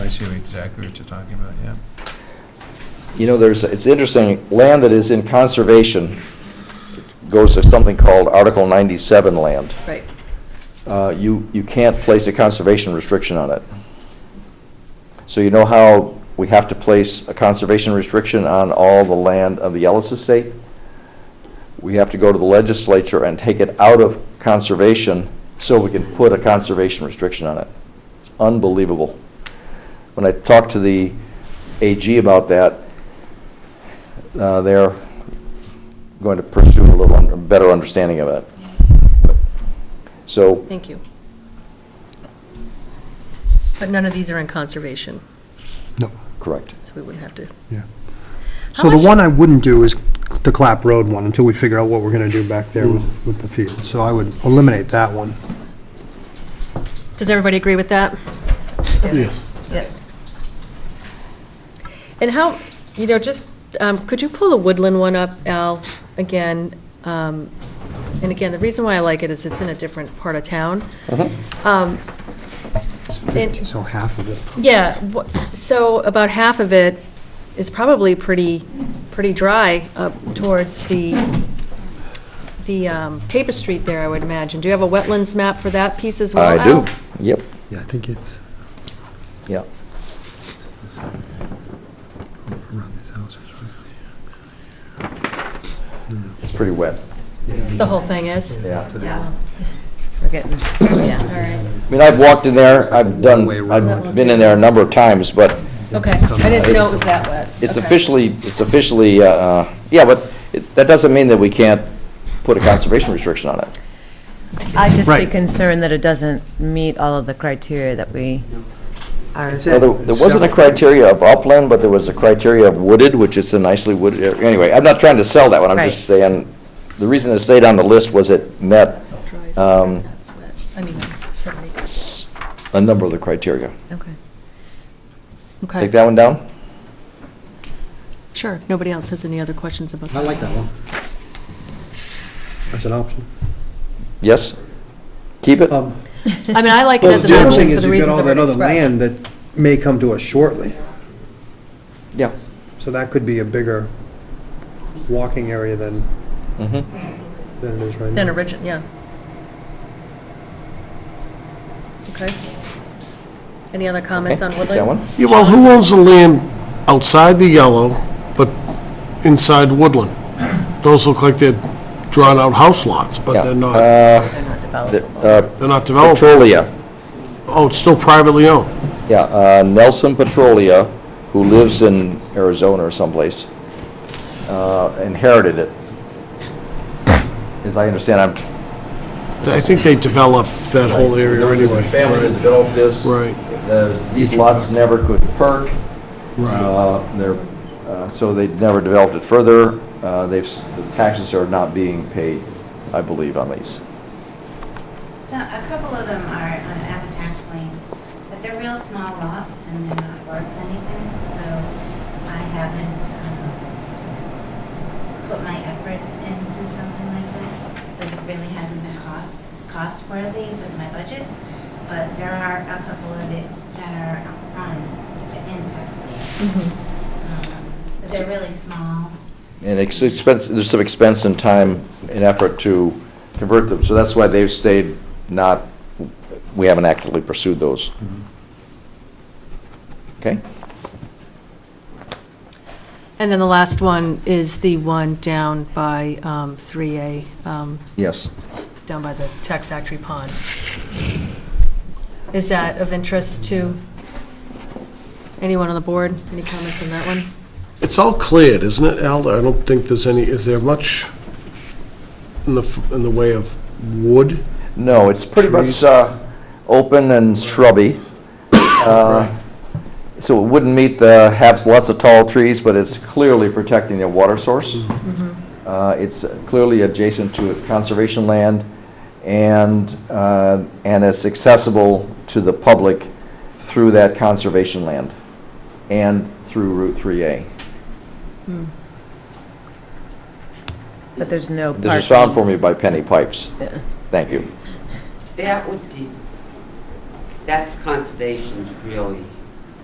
see what- exactly what you're talking about, yeah. You know, there's, it's interesting, land that is in conservation goes to something called Article 97 land. Right. Uh, You, you can't place a conservation restriction on it. So you know how we have to place a conservation restriction on all the land of the Ellis Estate? We have to go to the legislature and take it out of conservation so we can put a conservation restriction on it. It's unbelievable. When I talked to the AG about that, uh, they're going to pursue a little un- better understanding of it. So Thank you. But none of these are in conservation, No, Correct. so we wouldn't have to. yeah. How So the much- one I wouldn't do is the Clap Road one until we figure out what we're going to do back Hmm. there with with the field. So I would eliminate that one. Does everybody agree with that? Yes. Yes. And how, you know, just, um, could you pull the woodland one up, Al, again? Um, And again, the reason why I like it is it's in a different part of town. Um, And So half of it. Yeah, wha- so about half of it is probably pretty, pretty dry up towards the, the um, paper street there, I would imagine. Do you have a wetlands map for that piece as well? I do. Al? Yep, Yeah, I think it's yeah. around these houses, It's pretty wet. The whole thing is? Yeah. Yeah. We're getting, yeah, all right, I mean, I've walked in there, I've done, Way around. I've been in there a number of times, but okay. I didn't know it was that wet. it's Okay. officially, it's officially, uh, yeah, but it- that doesn't mean that we can't put a conservation restriction on it. I'd just be Right. concerned that it doesn't meet all of the criteria that we are. That's Now, it. There there wasn't a criteria of upland, but there was a criteria of wooded, which is a nicely wooded, area. anyway, I'm not trying to sell that one, I'm just Right. saying, the reason it stayed on the list was it met Dries, um, that's wet. I mean, seven acres, a number of the criteria. okay. Take Okay, that one down? sure, nobody else has any other questions about I that? like that one. That's an option. Yes? Keep it? Um, I mean, I like it Well, as an the other option thing for is the you've got reasons all I've that already other expressed. land that may come to us shortly, Yeah. so that could be a bigger walking area than, Mhm. than it is right now. Than origin, yeah. Okay. Any other comments on Okay, Woodland? That one? Yeah, well, who owns the land outside the yellow, but inside Woodland? Those look like they're drawn-out house lots, but they're not, they're They're not The, developed. uh, not developed. Petrolia, Oh, it's still privately owned. yeah, uh, Nelson Petrolia, who lives in Arizona or someplace, uh, inherited it. As I understand, I'm. I think they developed that whole area anyway. Family that built this. Right. Uh, These lots never could perk, Right. uh, they're, uh, so they never developed it further. Uh, They've, s- the taxes are not being paid, I believe, on these. So a couple of them are on Abbatax Lane, but they're real small lots and they're not worth anything, so I haven't um, put my efforts into something like that, because it really hasn't been cost, cost worthy with my budget. But there are a couple of it that are on, in tax lien. Um, But they're really small. And it's expense, there's some expense and time and effort to convert them, so that's why they've stayed not, we haven't actively pursued those. Okay? And then the last one is the one down by um, 3A, um, Yes. down by the Tech Factory Pond. Is that of interest to anyone on the board? Any comments on that one? It's all cleared, isn't it, Al? I don't think there's any, is there much in the, f- in the way of wood? No, it's pretty much, Trees. uh, open and shrubby. Uh, So it wouldn't meet the, have lots of tall trees, but it's clearly protecting their water source. Uh, It's clearly adjacent to conservation land, and, uh, and it's accessible to the public through that conservation land and through Route 3A. But there's no parking. This is found for me by Penny Pipes. Thank you. That would be, that's conservation's really